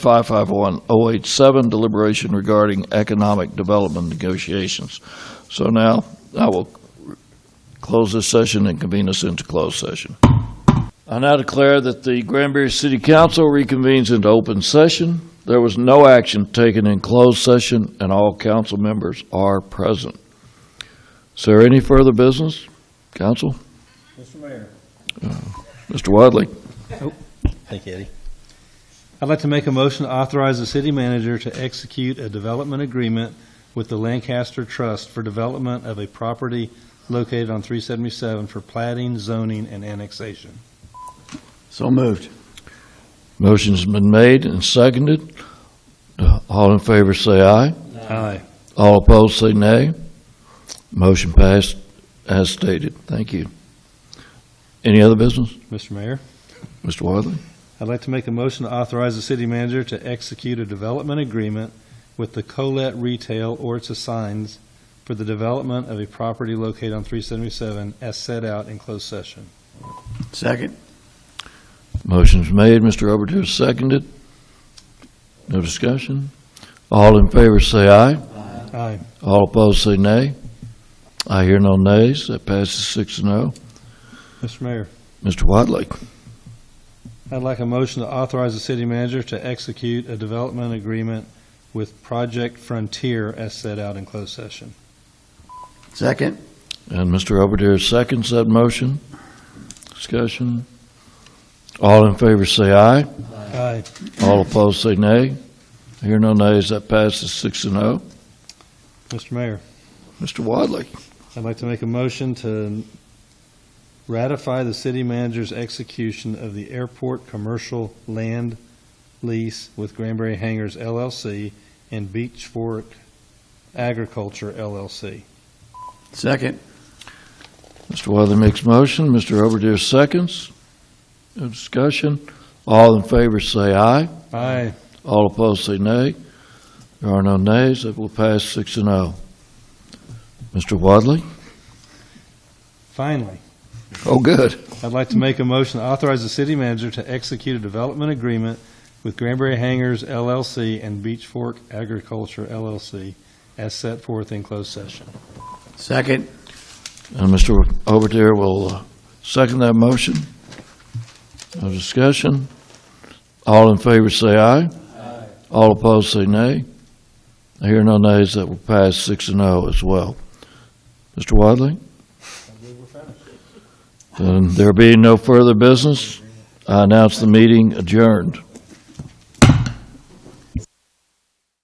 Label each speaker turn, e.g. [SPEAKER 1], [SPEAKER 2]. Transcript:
[SPEAKER 1] 551087, deliberation regarding economic development negotiations. So now, I will close this session and convene us into closed session. I now declare that the Granbury City Council reconvenes into open session. There was no action taken in closed session, and all council members are present. Is there any further business, council?
[SPEAKER 2] Mr. Mayor.
[SPEAKER 1] Mr. Wadley?
[SPEAKER 2] Thank you, Eddie. I'd like to make a motion to authorize the city manager to execute a development agreement with the Lancaster Trust for development of a property located on 377 for plating, zoning, and annexation.
[SPEAKER 3] So moved.
[SPEAKER 1] Motion's been made and seconded. Uh, All in favor, say aye.
[SPEAKER 2] Aye.
[SPEAKER 1] All opposed, say nay. Motion passed as stated. Thank you. Any other business?
[SPEAKER 2] Mr. Mayor,
[SPEAKER 1] Mr. Wadley?
[SPEAKER 2] I'd like to make a motion to authorize the city manager to execute a development agreement with the Colette Retail or its assigns for the development of a property located on 377 as set out in closed session.
[SPEAKER 3] Second.
[SPEAKER 1] Motion's made. Mr. Oberdehr seconded. No discussion? All in favor, say aye.
[SPEAKER 2] Aye.
[SPEAKER 1] All opposed, say nay. I hear no nays. That passes six and oh.
[SPEAKER 2] Mr. Mayor.
[SPEAKER 1] Mr. Wadley?
[SPEAKER 2] I'd like a motion to authorize the city manager to execute a development agreement with Project Frontier as set out in closed session.
[SPEAKER 3] Second.
[SPEAKER 1] And Mr. Oberdehr seconds that motion. Discussion? All in favor, say aye.
[SPEAKER 2] Aye.
[SPEAKER 1] All opposed, say nay. Hear no nays, that passes six and oh.
[SPEAKER 2] Mr. Mayor,
[SPEAKER 1] Mr. Wadley?
[SPEAKER 2] I'd like to make a motion to ratify the city manager's execution of the airport commercial land lease with Granbury Hangers LLC and Beach Fork Agriculture LLC.
[SPEAKER 3] Second.
[SPEAKER 1] Mr. Wadley makes motion, Mr. Oberdehr seconds. No discussion. All in favor, say aye.
[SPEAKER 2] Aye.
[SPEAKER 1] All opposed, say nay. There are no nays, that will pass six and oh. Mr. Wadley?
[SPEAKER 2] Finally.
[SPEAKER 1] Oh, good.
[SPEAKER 2] I'd like to make a motion to authorize the city manager to execute a development agreement with Granbury Hangers LLC and Beach Fork Agriculture LLC as set forth in closed session.
[SPEAKER 3] Second.
[SPEAKER 1] And Mr. Oberdehr will uh, second that motion. No discussion. All in favor, say aye. All opposed, say nay. I hear no nays, that will pass six and oh as well. Mr. Wadley? And there being no further business, I announce the meeting adjourned.